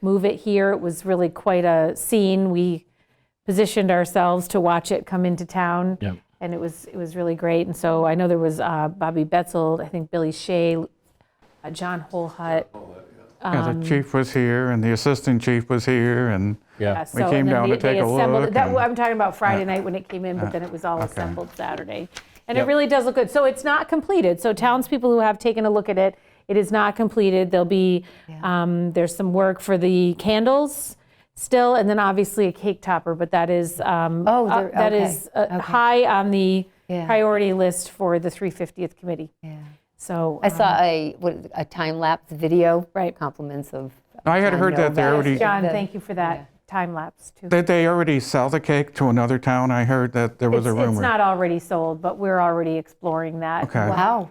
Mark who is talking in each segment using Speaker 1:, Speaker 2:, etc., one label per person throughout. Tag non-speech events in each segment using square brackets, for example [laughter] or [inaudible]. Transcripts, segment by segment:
Speaker 1: move it here. It was really quite a scene. We positioned ourselves to watch it come into town.
Speaker 2: Yep.
Speaker 1: And it was, it was really great. And so I know there was uh, Bobby Betzel, I think Billy Shea, uh, John Holhut.
Speaker 3: Yeah,
Speaker 1: Um,
Speaker 3: the chief was here and the assistant chief was here and,
Speaker 2: Yeah.
Speaker 1: So, and
Speaker 3: came
Speaker 1: then
Speaker 3: down
Speaker 1: they-
Speaker 3: to take
Speaker 1: they
Speaker 3: a
Speaker 1: assembled it.
Speaker 3: look
Speaker 1: That-
Speaker 3: and-
Speaker 1: I'm talking about Friday night when it came in, but then it was all
Speaker 3: okay.
Speaker 1: assembled Saturday. And it
Speaker 2: Yep.
Speaker 1: really does look good. So it's not completed. So townspeople who have taken a look at it, it is not completed. There'll be, um, there's some work for the candles still, and then obviously a cake topper, but that is, um,
Speaker 4: Oh,
Speaker 1: uh,
Speaker 4: there-
Speaker 1: that
Speaker 4: okay,
Speaker 1: is uh,
Speaker 4: okay.
Speaker 1: high on the
Speaker 4: Yeah.
Speaker 1: priority list for the 350th committee.
Speaker 4: Yeah.
Speaker 1: So.
Speaker 4: I
Speaker 1: um,
Speaker 4: saw a, what, a time lapse video.
Speaker 1: Right.
Speaker 4: Compliments of.
Speaker 3: I had
Speaker 4: John
Speaker 3: heard that they
Speaker 4: Novak.
Speaker 3: already,
Speaker 1: John,
Speaker 4: the-
Speaker 1: thank you for that time lapse too.
Speaker 3: that they already sell the cake to another town. I heard that there was a
Speaker 1: It's- It's
Speaker 3: rumor.
Speaker 1: not already sold, but we're already exploring that.
Speaker 3: Okay.
Speaker 4: Wow.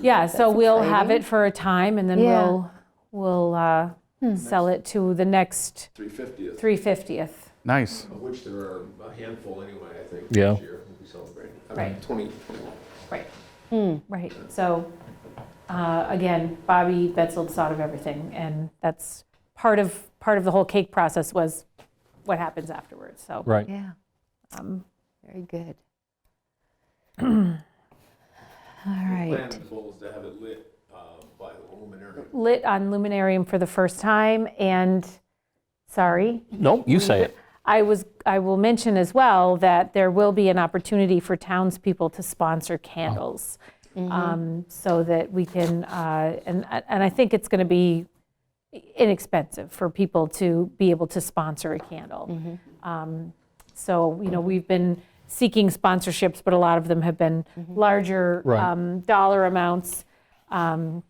Speaker 1: Yeah, so we'll have it for a time, and then
Speaker 4: Yeah.
Speaker 1: we'll, we'll uh, sell it to the next
Speaker 5: 350th,
Speaker 1: 350th.
Speaker 3: Nice.
Speaker 5: of which there are a handful anyway, I think,
Speaker 2: Yeah.
Speaker 5: this year we'll be celebrating. I mean,
Speaker 1: Right.
Speaker 5: 20, 21.
Speaker 1: Right. Right, so, uh, again, Bobby Betzel thought of everything, and that's part of, part of the whole cake process was what happens afterwards, so.
Speaker 2: Right.
Speaker 4: Yeah.
Speaker 1: um,
Speaker 4: Very
Speaker 1: [clears throat]
Speaker 4: good. All right.
Speaker 5: Plan goal is to have it lit uh, by the luminary.
Speaker 1: Lit on Luminarium for the first time, and, sorry,
Speaker 2: Nope, you say it.
Speaker 1: I was, I will mention as well that there will be an opportunity for townspeople to sponsor candles. um, So that we can, uh, and, and I think it's going to be inexpensive for people to be able to sponsor a candle. Um, So, you know, we've been seeking sponsorships, but a lot of them have been larger
Speaker 2: Right.
Speaker 1: um, dollar amounts. Um,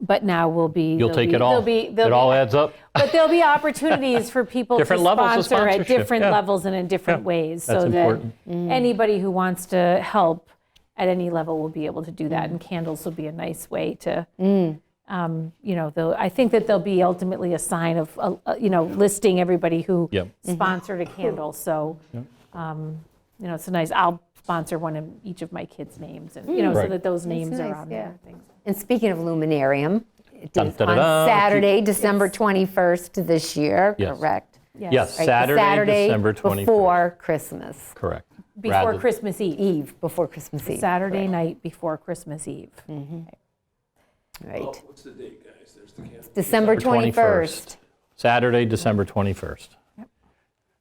Speaker 1: But now will be.
Speaker 2: You'll
Speaker 1: there'll
Speaker 2: take
Speaker 1: be-
Speaker 2: it all.
Speaker 1: there'll be- there'll
Speaker 2: It
Speaker 1: be-
Speaker 2: all adds up.
Speaker 1: but there'll be opportunities for people to
Speaker 2: Different levels of
Speaker 1: sponsor at
Speaker 2: sponsorship,
Speaker 1: different
Speaker 2: yeah.
Speaker 1: levels and in different ways. So
Speaker 2: that's
Speaker 1: that
Speaker 2: important.
Speaker 4: Mm.
Speaker 1: anybody who wants to help at any level will be able to do that. And candles will be a nice way to,
Speaker 4: Mm.
Speaker 1: um, you know, though, I think that there'll be ultimately a sign of, uh, uh, you know, listing everybody who
Speaker 2: Yep.
Speaker 4: Mm-hmm.
Speaker 1: sponsored a candle. So, um, you know, it's nice, I'll sponsor one of each of my kids' names and, you know, so
Speaker 2: Right.
Speaker 1: that those names are
Speaker 4: nice,
Speaker 1: on
Speaker 4: yeah.
Speaker 1: there. and things.
Speaker 4: And speaking of luminarium, it
Speaker 2: Dun,
Speaker 4: is
Speaker 2: dun, dun, dun.
Speaker 4: on Saturday, December 21st this year,
Speaker 2: Yes.
Speaker 4: correct?
Speaker 2: Yes,
Speaker 4: Right, the
Speaker 2: Saturday, December 21st.
Speaker 4: Before Christmas
Speaker 2: Correct.
Speaker 1: Before
Speaker 2: Rather-
Speaker 1: Christmas Eve,
Speaker 4: Eve, before Christmas Eve.
Speaker 1: Saturday night before Christmas Eve.
Speaker 5: Oh,
Speaker 4: Right.
Speaker 5: What's the date, guys? There's the candle.
Speaker 4: December 21st.
Speaker 2: Saturday, December 21st.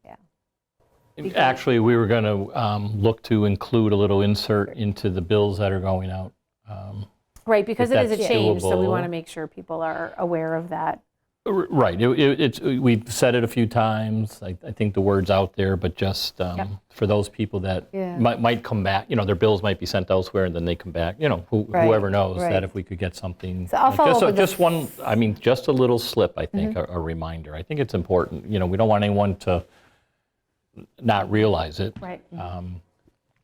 Speaker 4: Yeah.
Speaker 2: Actually, we were going to look to include a little insert into the bills that are going out. Um,
Speaker 1: Right, because
Speaker 2: If
Speaker 1: it is a
Speaker 2: that's
Speaker 1: change, so we
Speaker 2: doable.
Speaker 1: want to make sure people are aware of that.
Speaker 2: r- Right, it- it- it's, uh, we've said it a few times, I I think the word's out there, but just um,
Speaker 1: Yep.
Speaker 2: for those people that
Speaker 4: Yeah.
Speaker 2: might might come back, you know, their bills might be sent elsewhere and then they come back, you know, who-
Speaker 4: Right,
Speaker 2: whoever knows,
Speaker 4: right.
Speaker 2: that if we could get something.
Speaker 4: So I'll
Speaker 2: like-
Speaker 4: follow
Speaker 2: just
Speaker 4: up
Speaker 2: a-
Speaker 4: with the- Mm-hmm.
Speaker 2: Just one, I mean, just a little slip, I think, a a reminder. I think it's important, you know, we don't want anyone to not realize it.
Speaker 1: Right.
Speaker 2: Um,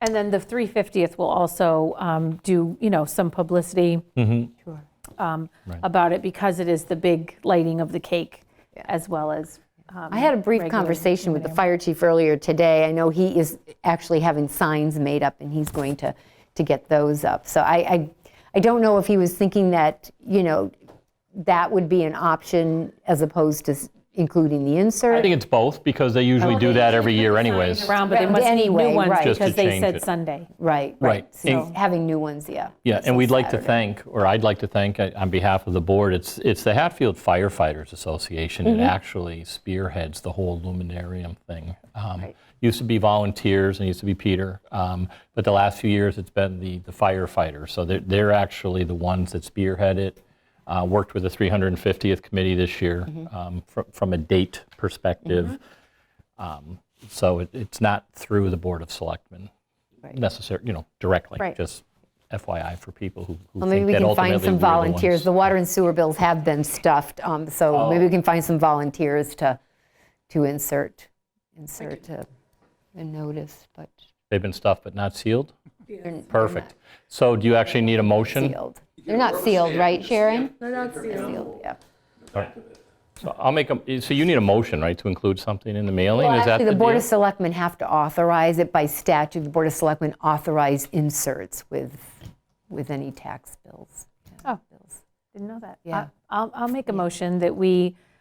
Speaker 1: And then the 350th will also um, do, you know, some publicity
Speaker 2: Mm-hmm.
Speaker 1: um, about it because it is the big lighting of the cake as well as. um,
Speaker 4: I had a brief
Speaker 1: regular
Speaker 4: conversation with the fire chief earlier today. I know he is actually having signs made up and he's going to, to get those up. So I, I, I don't know if he was thinking that, you know, that would be an option as opposed to s- including the
Speaker 2: I
Speaker 4: insert.
Speaker 2: think it's both, because they usually do that every year anyways.
Speaker 1: Around, but they
Speaker 4: Right,
Speaker 1: must need new
Speaker 4: anyway,
Speaker 1: ones
Speaker 4: right.
Speaker 2: Just to
Speaker 1: because they
Speaker 2: change
Speaker 1: said
Speaker 2: it.
Speaker 1: Sunday.
Speaker 4: Right,
Speaker 2: Right.
Speaker 4: right. So
Speaker 2: And-
Speaker 4: having new ones, yeah.
Speaker 2: Yeah, and we'd like to
Speaker 4: Saturday.
Speaker 2: thank, or I'd like to thank, uh, on behalf of the board, it's, it's the Hatfield Firefighters Association that actually spearheads the whole luminarium thing. Um, Used to be volunteers, and used to be Peter, um, but the last few years, it's been the the firefighters. So they're, they're actually the ones that spearhead it. Uh, Worked with the 350th committee this year, um, fr- from a date perspective. Um, So it- it's not through the Board of Selectmen necessarily, you know, directly.
Speaker 1: Right.
Speaker 2: Just FYI for people who who
Speaker 4: Well, maybe
Speaker 2: think
Speaker 4: we
Speaker 2: that
Speaker 4: can
Speaker 2: ultimately
Speaker 4: find some
Speaker 2: we're the ones-
Speaker 4: volunteers. The water and sewer bills have been stuffed, um,
Speaker 2: Oh.
Speaker 4: so maybe we can find some volunteers to, to insert, insert a a notice, but
Speaker 2: They've been stuffed but not sealed?
Speaker 4: they're n-
Speaker 2: Perfect. So do you actually need a motion?
Speaker 4: sealed. They're not sealed, right, Sharon?
Speaker 5: They're not
Speaker 4: They're sealed, yeah.
Speaker 2: So I'll make, a. so you need a motion, right, to include something in the mailing?
Speaker 4: Well,
Speaker 2: Is that
Speaker 4: actually,
Speaker 2: the
Speaker 4: the Board
Speaker 2: deal?
Speaker 4: of Selectmen have to authorize it by statute. The Board of Selectmen authorize inserts with, with any tax bills.
Speaker 1: Oh. Didn't know that.
Speaker 4: Yeah.
Speaker 1: I- I'll, I'll make a motion that we